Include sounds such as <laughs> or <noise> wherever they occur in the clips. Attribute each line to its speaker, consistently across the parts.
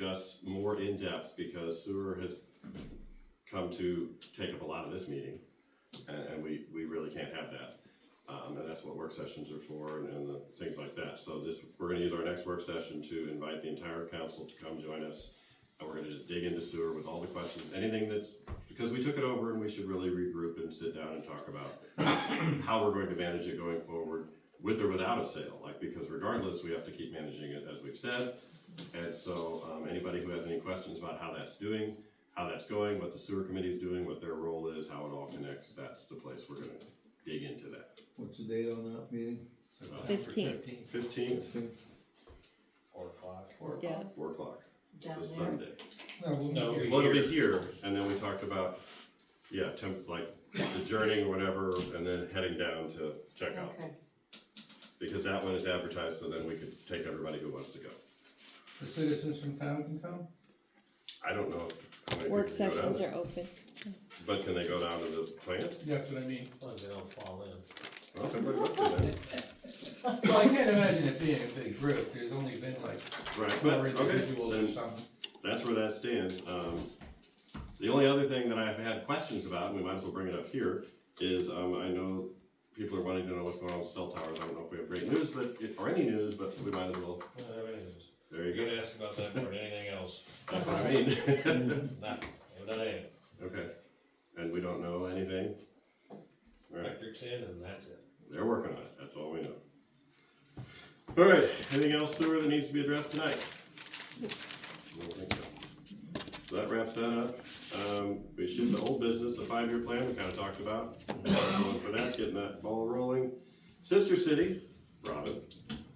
Speaker 1: discuss more in depth because sewer has come to take up a lot of this meeting. And, and we, we really can't have that. Um, and that's what work sessions are for and, and the things like that. So this, we're gonna use our next work session to invite the entire council to come join us. And we're gonna just dig into sewer with all the questions, anything that's, because we took it over and we should really regroup and sit down and talk about <coughs> how we're going to manage it going forward with or without a sale, like, because regardless, we have to keep managing it as we've said. And so, um, anybody who has any questions about how that's doing, how that's going, what the sewer committee is doing, what their role is, how it all connects, that's the place we're gonna dig into that.
Speaker 2: What's the date on that meeting?
Speaker 3: Fifteenth.
Speaker 1: Fifteenth,
Speaker 4: Four o'clock.
Speaker 1: four
Speaker 3: Yeah.
Speaker 1: o'clock, four o'clock, it's
Speaker 5: down
Speaker 1: a
Speaker 5: there.
Speaker 1: Sunday.
Speaker 2: No, we'll
Speaker 4: No,
Speaker 2: make it-
Speaker 1: Well, it'll be here, and then we talked about, yeah, temp, like, adjourning or whatever, and then heading down to check out.
Speaker 5: Okay,
Speaker 1: Because that one is advertised, so then we could take everybody who wants to go.
Speaker 2: The citizens from town can come?
Speaker 1: I don't know how many people
Speaker 3: Work
Speaker 1: can go down
Speaker 3: sessions
Speaker 1: there,
Speaker 3: are open.
Speaker 1: but can they go down to the plant?
Speaker 2: That's what I mean.
Speaker 4: Well, they don't fall in.
Speaker 1: Well, everybody wants to do
Speaker 2: Well, I can't imagine it being a big group, there's only been like
Speaker 1: that. Right, but,
Speaker 2: four
Speaker 1: okay,
Speaker 2: individuals or
Speaker 1: then
Speaker 2: something.
Speaker 1: that's where that stands. Um, the only other thing that I've had questions about, and we might as well bring it up here, is, um, I know people are wanting to know what's going on with cell towers. I don't know if we have great news, but, or any news, but we might as well, there you
Speaker 4: You're
Speaker 1: go.
Speaker 4: gonna ask about that more than anything else.
Speaker 1: That's what I mean. <laughs>
Speaker 4: Nothing, that ain't.
Speaker 1: Okay, and we don't know anything? Alright,
Speaker 4: Electric's in and that's it.
Speaker 1: they're working on it, that's all we know. Alright, anything else sewer that needs to be addressed tonight? I don't think so. So that wraps that up, um, we should, the old business, the five-year plan, we kinda talked about, Going for that, getting that ball rolling. Sister city, Robin,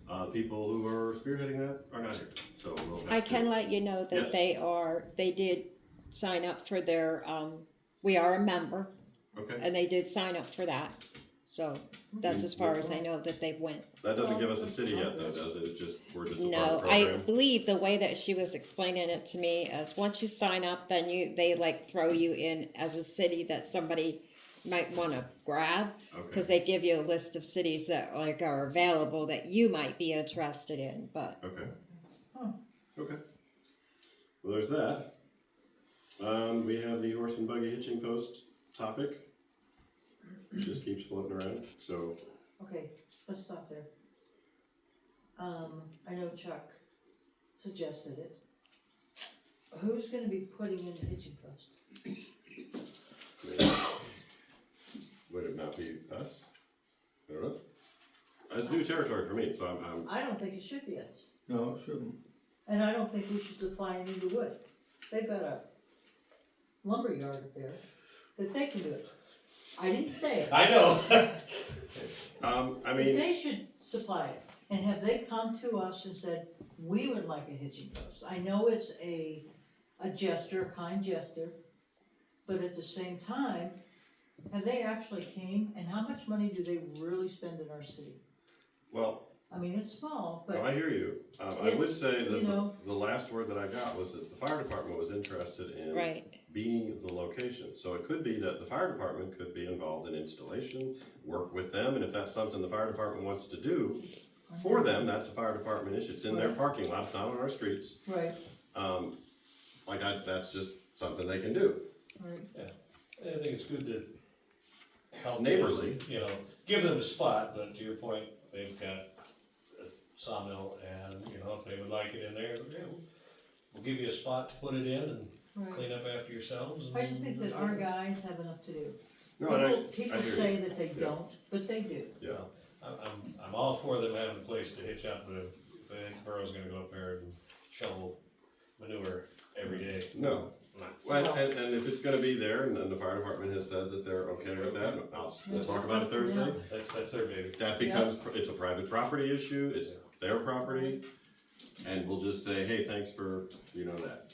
Speaker 1: uh, people who are spearheading that are not here, so we'll have to.
Speaker 3: I can let you know
Speaker 1: Yes.
Speaker 3: that they are, they did sign up for their, um, we are a member,
Speaker 1: Okay,
Speaker 3: and they did sign up for that. So that's as far as I know that they went.
Speaker 1: that doesn't give us a city yet though, does it, it's just, we're just a part of the
Speaker 3: No,
Speaker 1: program?
Speaker 3: I believe the way that she was explaining it to me is once you sign up, then you, they like throw you in as a city that somebody might wanna grab,
Speaker 1: Okay.
Speaker 3: cause they give you a list of cities that like are available that you might be interested in, but
Speaker 1: Okay.
Speaker 5: Huh.
Speaker 1: Okay. Well, there's that. Um, we have the horse and buggy hitching post topic. It Just keeps floating around, so,
Speaker 5: okay, let's stop there. Um, I know Chuck suggested it. Who's gonna be putting in the hitching post?
Speaker 1: I mean, would it not be us? I don't know. It's new territory for me, so I'm, I'm,
Speaker 5: I don't think it should be us,
Speaker 2: No, it shouldn't.
Speaker 5: and I don't think we should supply any of the wood. They've got a lumber yard up there that they can do it. I didn't say it.
Speaker 4: I know.
Speaker 1: um, I mean,
Speaker 5: They should supply it, and have they come to us and said, we would like a hitching post? I know it's a, a gesture, a kind gesture, but at the same time, have they actually came, and how much money do they really spend in our city?
Speaker 1: well,
Speaker 5: I mean, it's small,
Speaker 1: no, I
Speaker 5: but,
Speaker 1: hear you. Um, I would
Speaker 5: It's,
Speaker 1: say
Speaker 5: you
Speaker 1: that the,
Speaker 5: know.
Speaker 1: the last word that I got was that the fire department was interested in
Speaker 3: right.
Speaker 1: being the location. So it could be that the fire department could be involved in installation, work with them, and if that's something the fire department wants to do for them, that's a fire department issue. It's in their parking lots, not on our streets.
Speaker 5: right,
Speaker 1: Um, like I, that's just something they can do.
Speaker 5: right.
Speaker 4: I think it's good to help.
Speaker 1: neighborly.
Speaker 4: them, You know, give them a spot, but to your point, they've got a sawmill and, you know, if they would like it in there, yeah, we'll give you a spot to put it in and
Speaker 5: Right.
Speaker 4: clean up after yourselves.
Speaker 5: I just think that
Speaker 4: and-
Speaker 5: our guys have enough to do.
Speaker 1: No, and I,
Speaker 5: People- People
Speaker 1: I hear you.
Speaker 5: say that they
Speaker 1: Yeah.
Speaker 5: don't, but they do.
Speaker 1: yeah,
Speaker 4: I'm, I'm, I'm all for them having a place to hitch up, but if I think the borough's gonna go up there and shovel manure every day.
Speaker 1: no. Well, and, and if it's gonna be there, and then the fire department has said that they're okay with that, I'll, we'll talk about it Thursday.
Speaker 4: That's, that's their baby.
Speaker 1: That becomes, it's a private property issue, it's their property, and we'll just say, hey, thanks for, you know, that.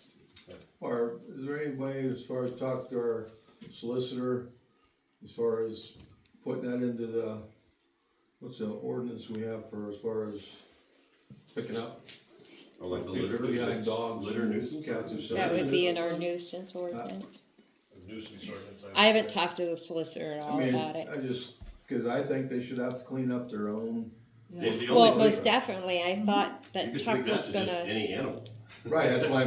Speaker 6: Or is there any way as far as talk to our solicitor, as far as putting that into the, what's the ordinance we have for as far as picking up?
Speaker 1: Or like the
Speaker 6: People
Speaker 1: litter
Speaker 6: behind
Speaker 1: nuisance,
Speaker 6: dogs.
Speaker 1: litter nuisance.
Speaker 6: Cats and stuff.
Speaker 3: That would be in our nuisance ordinance.
Speaker 4: Nuisance ordinance. would
Speaker 3: I haven't
Speaker 4: say.
Speaker 3: talked to the solicitor at
Speaker 6: I
Speaker 3: all
Speaker 6: mean,
Speaker 3: about it.
Speaker 6: I just, cause I think they should have to clean up their own.
Speaker 1: The- the only
Speaker 3: Well,
Speaker 1: thing-
Speaker 3: most definitely, I thought
Speaker 1: you
Speaker 3: that
Speaker 1: could
Speaker 3: Chuck
Speaker 1: tweak that
Speaker 3: was
Speaker 1: to just
Speaker 3: gonna.
Speaker 1: Any animal.
Speaker 6: Right, that's why I